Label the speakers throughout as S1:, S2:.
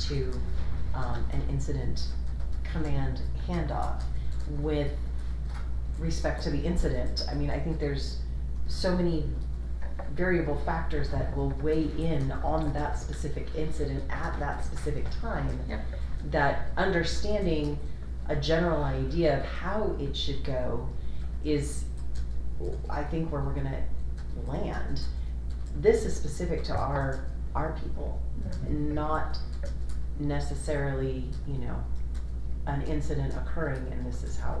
S1: to um, an incident command handoff with respect to the incident. I mean, I think there's so many variable factors that will weigh in on that specific incident at that specific time.
S2: Yep.
S1: That understanding a general idea of how it should go is, I think, where we're gonna land. This is specific to our, our people, not necessarily, you know, an incident occurring and this is how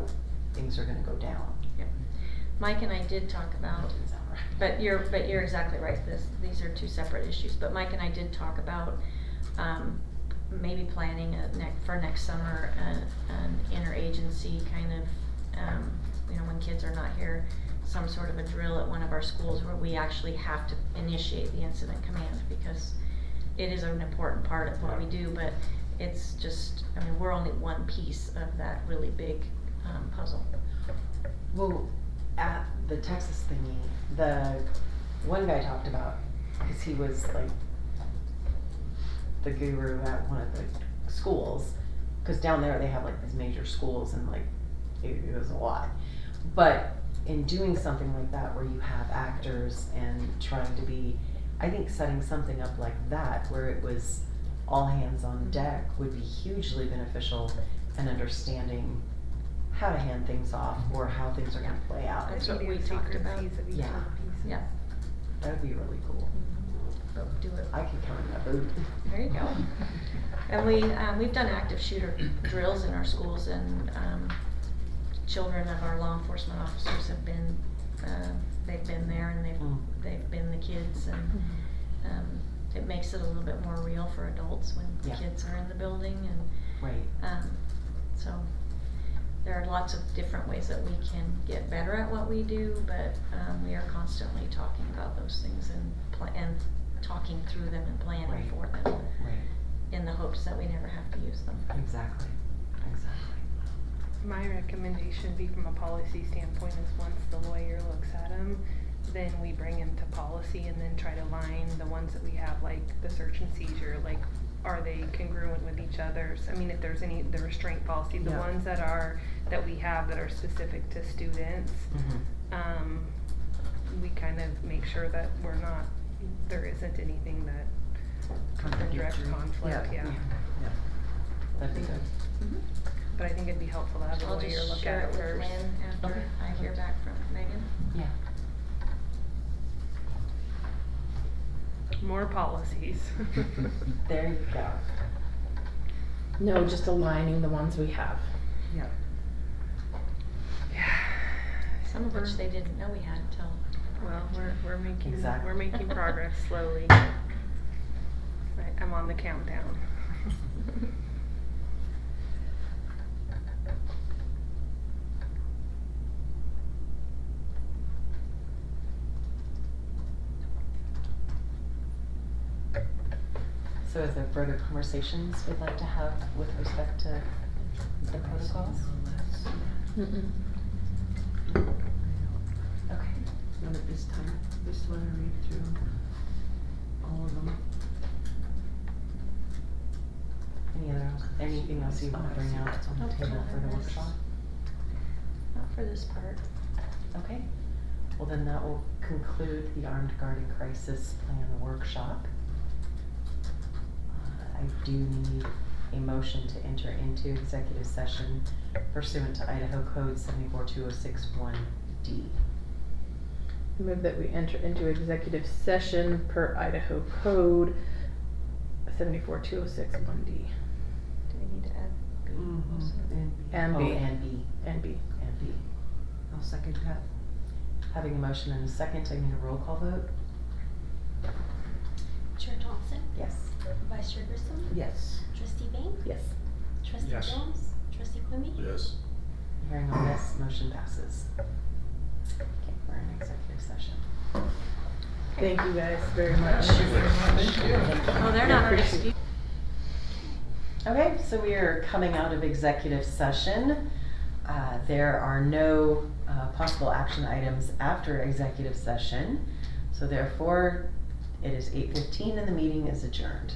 S1: things are gonna go down.
S2: Mike and I did talk
S1: That
S2: about,
S1: doesn't sound right.
S2: but you're, but you're exactly right, this, these are two separate issues, but Mike and I did talk about, um, maybe planning a neck, for next summer, an, an interagency kind of, um, you know, when kids are not here, some sort of a drill at one of our schools where we actually have to initiate the incident command, because it is an important part of what we do, but it's just, I mean, we're only one piece of that really big, um, puzzle.
S1: Well, at the Texas thingy, the one guy talked about because he was like the guru at one of the schools. Because down there they have like these major schools and like it, it was a lot. But in doing something like that where you have actors and trying to be, I think setting something up like that where it was all hands on deck would be hugely beneficial and understanding how to hand things off or how things are going to play out.
S2: That's what we talked about.
S1: Yeah.
S2: Yeah.
S1: That would be really cool.
S2: But do it.
S1: I could come in that boot.
S2: There you go. And we, um, we've done active shooter drills in our schools and, um, children of our law enforcement officers have been, um, they've been there and
S1: Mm.
S2: they've, they've been the kids and, um, it makes it a little bit more real for adults when
S1: Yeah.
S2: kids are in the building and,
S1: Right.
S2: um, so there are lots of different ways that we can get better at what we do, but, um, we are constantly talking about those things and pla- and talking through them and planning
S1: Right.
S2: for them
S1: Right.
S2: in the hopes that we never have to use them.
S1: Exactly. Exactly.
S3: My recommendation be from a policy standpoint is once the lawyer looks at them, then we bring them to policy and then try to line the ones that we have, like the search and seizure, like are they congruent with each other's? I mean, if there's any, the restraint policy, the
S1: Yeah.
S3: ones that are, that we have that are specific to students, um, we kind of make sure that we're not, there isn't anything that,
S1: Contradictory.
S3: direct conflict, yeah.
S1: Yeah. That'd be good.
S3: but I think it'd be helpful to have the
S2: I'll
S3: lawyer
S2: just
S3: look
S2: share
S3: at
S2: it
S3: it
S2: with
S3: first.
S2: Lynn after
S1: Okay.
S2: I hear back from Megan.
S1: Yeah.
S3: More policies.
S1: There you go.
S4: No, just aligning the ones we have.
S1: Yeah.
S2: Some of which they didn't know we had until.
S3: Well, we're, we're making,
S1: Exactly.
S3: we're making progress slowly. I- I'm on the countdown.
S1: So is there further conversations we'd like to have with respect to the protocols?
S4: Mm-mm.
S1: Okay.
S5: Not at this time, just wanna read through all of them.
S1: Any other, anything else you want to bring out on the
S2: Nope,
S1: table for the
S2: otherwise-
S1: workshop?
S2: Not for this part.
S1: Okay, well then that will conclude the Armed Guard and Crisis Plan workshop. Uh, I do need a motion to enter into executive session pursuant to Idaho Code seventy-four two oh six one D.
S4: Move that we enter into executive session per Idaho Code seventy-four two oh six one D
S2: Do we need to add?
S4: Mm-hmm. And B.
S1: Oh, and B,
S4: and B.
S1: and B.
S5: I'll second that.
S1: Having a motion and a second, I need a roll call vote?
S6: Chair Thompson,
S1: Yes.
S6: Vice Chair Grissom,
S5: Yes.
S6: Trustee Bain,
S4: Yes.
S6: Trustee
S7: Yes.
S6: Jones, Trustee Quimby.
S7: Yes.
S1: Hearing all yes, motion passes. Okay, we're in executive session.
S4: Thank you guys very much.
S2: Oh, they're not our
S4: Appreciate-
S2: excuse.
S1: Okay, so we are coming out of executive session. Uh, There are no uh, possible action items after executive session. So therefore, it is 8:15 and the meeting is adjourned.